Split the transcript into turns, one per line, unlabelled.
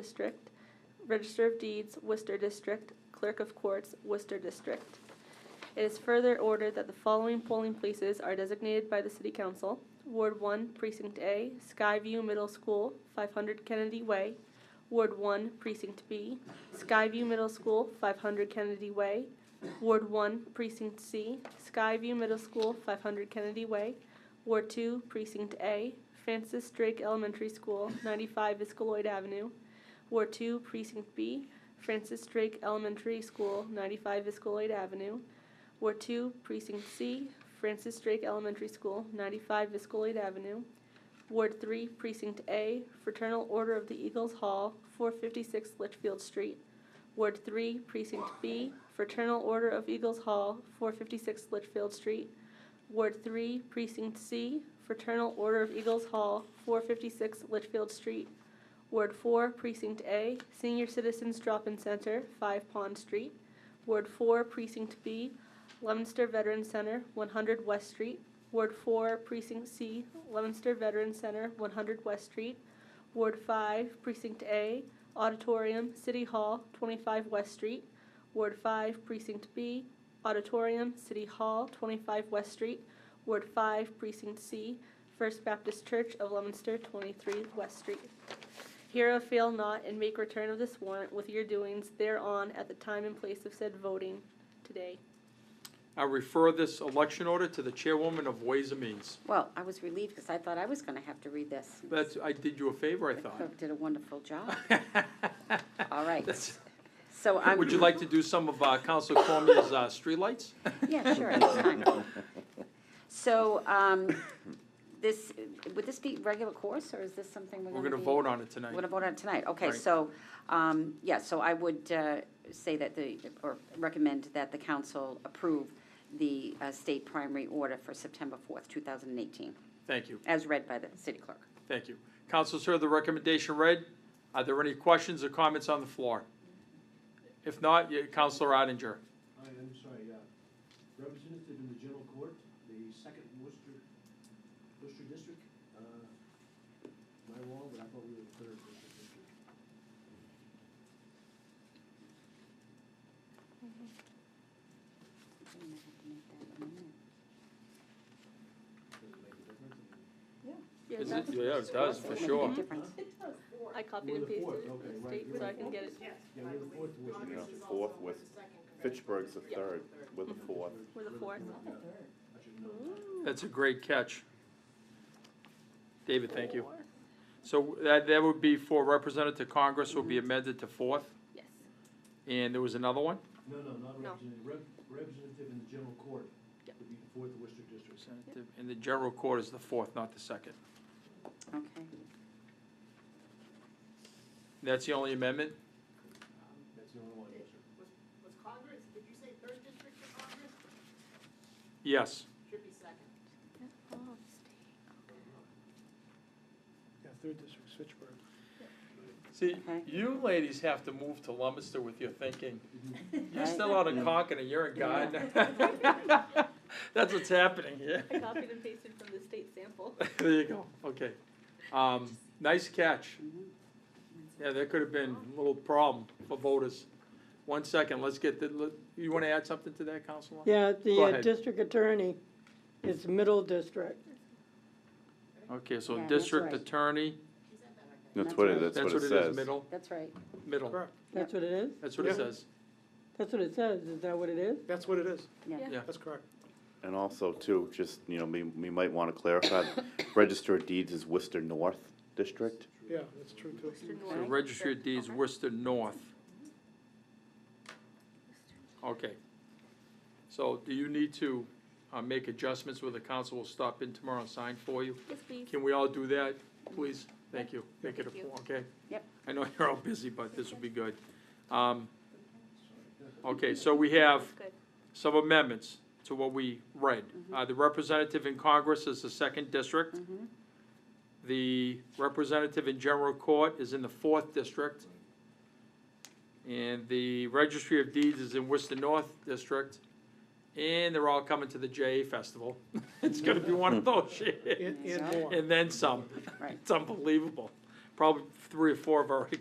District, Register of Deeds, Worcester District, Clerk of Courts, Worcester District. It is further ordered that the following polling places are designated by the City Council. Ward One, Precinct A, Skyview Middle School, five hundred Kennedy Way. Ward One, Precinct B, Skyview Middle School, five hundred Kennedy Way. Ward One, Precinct C, Skyview Middle School, five hundred Kennedy Way. Ward Two, Precinct A, Francis Drake Elementary School, ninety-five Iscaloid Avenue. Ward Two, Precinct B, Francis Drake Elementary School, ninety-five Iscaloid Avenue. Ward Two, Precinct C, Francis Drake Elementary School, ninety-five Viscoid Avenue. Ward Three, Precinct A, Fraternal Order of the Eagles Hall, four fifty-six Litchfield Street. Ward Three, Precinct B, Fraternal Order of Eagles Hall, four fifty-six Litchfield Street. Ward Three, Precinct C, Fraternal Order of Eagles Hall, four fifty-six Litchfield Street. Ward Four, Precinct A, Senior Citizens Drop-In Center, five Pond Street. Ward Four, Precinct B, Leominster Veterans Center, 100 West Street. Ward 4, Precinct C, Leominster Veterans Center, 100 West Street. Ward 5, Precinct A, Auditorium, City Hall, 25 West Street. Ward 5, Precinct B, Auditorium, City Hall, 25 West Street. Ward 5, Precinct C, First Baptist Church of Leominster, 23 West Street. Hereof fail not, and make return of this warrant with your doings thereon at the time and place of said voting today.
I refer this election order to the chairwoman of Ways and Means.
Well, I was relieved because I thought I was going to have to read this.
That's, I did you a favor, I
The
thought.
clerk did a wonderful job. All right,
That's-
so um, I'm.
Would you like to do some of uh, Council Cormier's uh, streetlights?
Yeah, sure, it's fine. So, um, this, would this be regular course, or is this something we're
We're
going to
going to
be-
vote on it
We're
tonight.
going to vote on it tonight, okay,
Right.
so, um, yeah, so I would uh, say that the, or recommend that the council approve the uh, state primary order for September fourth, two thousand and eighteen,
Thank you,
as read by the city clerk.
thank you. Councilors heard the recommendation read. Are there any questions or comments on the floor? If not, you- Councilor Ottinger.
Hi, I'm sorry, uh, representative in the general court, the second Worcester, Worcester district, uh, my wall, but I thought we were the third Worcester district. Does it make a difference?
Yeah,
Is
that
it-
was-
Yeah, it does, for
Make a
sure.
difference.
I copied
We're
and
the
pasted
fourth,
it from
okay,
the
right,
state,
you're
so I
right.
can get it.
Yeah, we're the fourth Worcester
Congress
district.
is
fourth
also
with
the second.
Fitchburg's the third, with the fourth.
We're the fourth.
Yeah, I should know.
That's a great catch. David, thank you. So that, that would be for Representative Congress will be amended to fourth,
Yes.
and there was another one?
No, no, not
No.
representative, Rep- representative in the general court
Yep.
would be the fourth Worcester district.
Representative, and the general court is the fourth, not the second.
Okay,
That's the only amendment?
That's the only one, yes, sir.
Was Congress, did you say third district for Congress?
Yes.
Should be second.
Yeah, third district, Fitchburg.
See,
Okay.
you ladies have to move to Lumister with your thinking. You're
Right.
still out of Concord and you're in Gardner. That's what's happening here.
I copied and pasted from the state sample.
There you go, okay. Um, nice catch.
Mm-hmm.
Yeah, there could have been a little problem for voters. One second, let's get the, let- you wanna add something to that, Councilor?
Yeah,
Go
the uh,
ahead.
district attorney is middle district.
Okay, so
Yeah, that's
district
right.
attorney,
That's what it
that's
that's what it
says.
is, middle,
that's right.
middle,
That's what it is?
that's what it
Yeah.
says.
That's what it says. Is that what it is?
That's what it is.
Yeah.
Yeah.
That's correct.
And also too, just, you know, we, we might want to clarify, Register of Deeds is Worcester North District.
Yeah, that's true too.
So registry of deeds, Worcester North. Okay. So do you need to, uh, make adjustments where the council will stop in tomorrow and sign for you?
Yes, please.
Can we all do that, please? Thank you. Make it a four, okay?
Yep.
I know you're all busy, but this will be good. Um, Okay, so we have
Good.
some amendments to what we read. Uh, The representative in Congress is the second district. The representative in general court is in the fourth district. And the registry of deeds is in Worcester North District. And they're all coming to the JA Festival. It's gonna be one of those years.
And, and more.
And then some.
Right.
It's unbelievable. Probably three or four have already